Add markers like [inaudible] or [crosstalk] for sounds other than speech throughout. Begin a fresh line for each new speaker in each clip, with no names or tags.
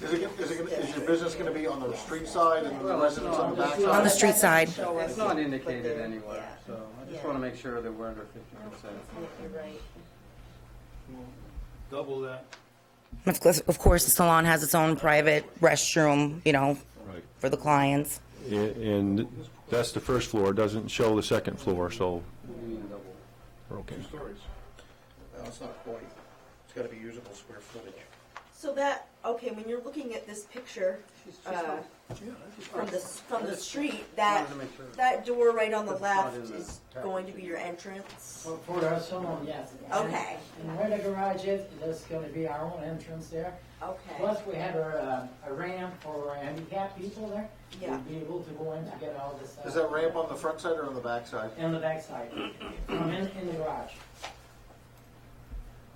Is it, is it, is your business gonna be on the street side and the
Well, it's
residents on the
not.
back
On
side?
the street side.
It's not indicated anywhere,
Yeah.
so I just
Yeah.
wanna make sure that we're under fifty percent.
You're right.
Double that.
Of course, of course, the salon has its own private restroom, you know,
Right.
for the clients.
And that's the first floor, doesn't show the second floor, so, we're okay.
Stories. No, it's not quite. It's gotta be usable square footage.
So that, okay, when you're looking at this picture, uh, from the, from the street, that,
Wanted to make sure.
that door right on the
It's not
left
in the
is
package.
going to be your entrance?
For our salon, Oh, yes.
Okay,
And where the garage is, there's gonna be our own entrance there.
okay,
Plus, we have a, uh, a ramp for handicapped people there.
Yeah.
We'll be able to go in to get all this. uh,
Is that ramp on the front side or on the back side?
In the backside, from in, in the garage.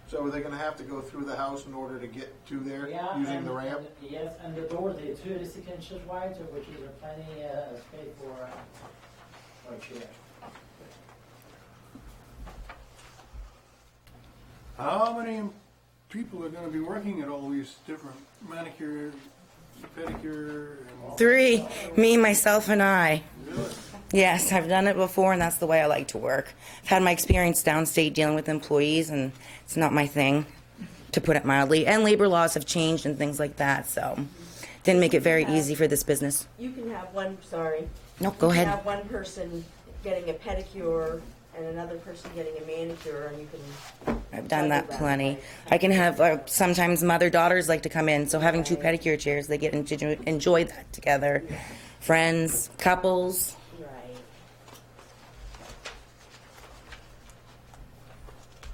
So are they gonna have to go through the house in order to get to there,
Yeah.
using
and-
the ramp?
and- Yes, and the door, the two residential wide, which is a plenty, uh, space for, uh, for chair.
How many people are gonna be working at all these different manicure, pedicure, and all?
Three, me, myself, and I.
Really?
Yes, I've done it before, and that's the way I like to work. I've had my experience downstate dealing with employees, and it's not my thing, to put it mildly. And labor laws have changed and things like that, so didn't make it very easy for this business.
you can have one, sorry.
No, go
You can
ahead.
have one person getting a pedicure and another person getting a manicure, and you can,
I've done that plenty. I can have uh, sometimes mother daughters like to come in, so having two pedicure chairs, they get to enjoy- enjoy that together. Friends, couples.
right.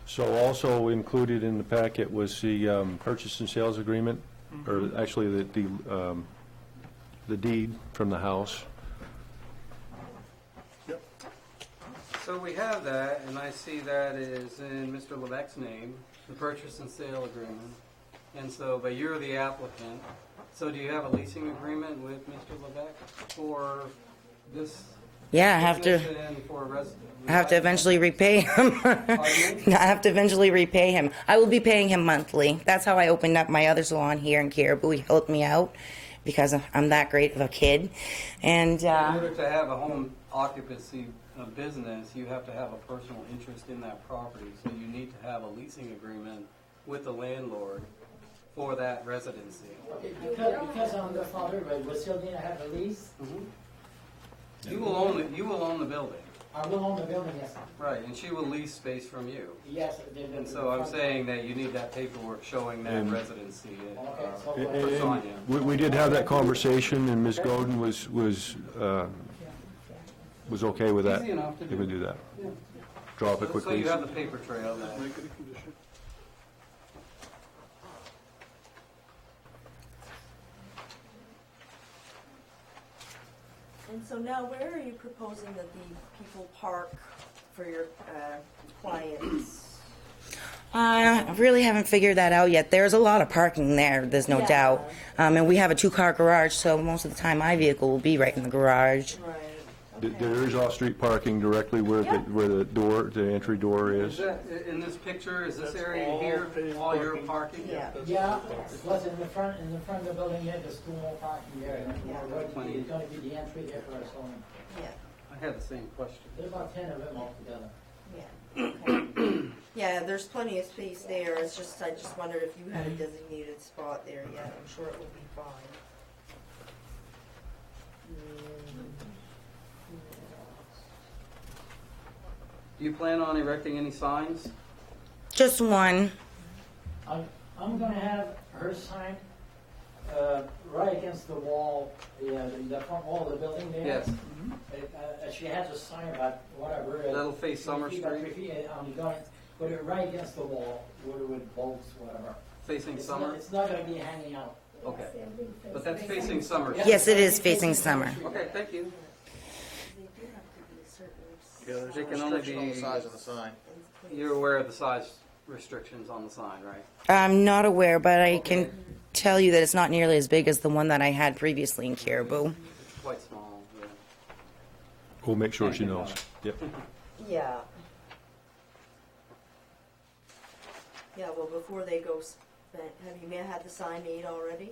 So also included in the packet was the um, purchase and sales agreement, or actually the, the um, the deed from the house.
So we have that, and I see that is in Mr. Levesque's name, the purchase and sale agreement. And so, but you're the applicant, so do you have a leasing agreement with Mr. Levesque for this?
Yeah, I have to.
business And for res-
I have to eventually repay him. [laughs] No, I have to eventually repay him. I will be paying him monthly. That's how I opened up my other salon here in Caribou. He helped me out because I'm that great of a kid. And
In
uh,
order to have a home occupancy uh, business, you have to have a personal interest in that property. So you need to have a leasing agreement with the landlord for that residency.
Because, because I'm the father, but we still need to have a lease.
You will own, it- you will own the building,
I will own the building, yes.
right, and she will lease space from you.
Yes. the- the-
And so I'm saying that you need that paperwork showing that
And-
residency. uh,
Okay, so.
And-
uh,
and We, we did have that conversation, and Ms. Godin was, was, uh, was okay with that.
Easy enough to
They would
do.
do that. Draw up a quick
So you
lease.
have the paper trail that.
Make it a condition.
And so now, where are you proposing that the people park for your uh, clients?
Uh, I really haven't figured that out yet. There's a lot of parking there, there's no
Yeah.
doubt. Um, and we have a two car garage, so most of the time my vehicle will be right in the garage.
Right.
Th- There is off-street parking directly where the,
Yeah.
where the door, the entry door
Is
is.
that, i- in this picture, is this
That's
area
all
here,
paid
all your
parking.
parking?
Yeah.
Yeah, plus in the front, in the front of the building, yeah, there's two more parking there, and
Yeah.
it's gonna be- it's gonna be the entry there for us only.
Yeah,
I had the same question.
There's about ten of them altogether.
yeah. okay. Yeah, there's plenty of space there, it's just, I just wondered if you had a designated spot there yet, I'm sure it will be fine.
Do you plan on erecting any signs?
Just one.
I'm, I'm gonna have her sign, uh, right against the wall, yeah, the, the front wall of the building there.
Yes.
It, uh, she has a sign about whatever. uh,
That'll face
three
Summer
feet by
Street.
three feet, and uh, I'm going, put it right against the wall, where it would bolts, whatever.
Facing
It's
summer?
not, it's not gonna be hanging out.
Okay. But that's facing summer.
Yeah,
Yes,
it's
it
gonna
is
be
facing summer.
Okay, thank you.
They do have to be certain.
Yeah, there's
They
a
can only
restriction on the
be-
size of the sign.
You're aware of the size restrictions on the sign, right?
I'm not aware, but I
Okay.
can tell you that it's not nearly as big as the one that I had previously in Caribou.
Quite small, yeah.
We'll make sure she knows. Yep.
Yeah. Yeah, well, before they go, s- have you had the sign made already?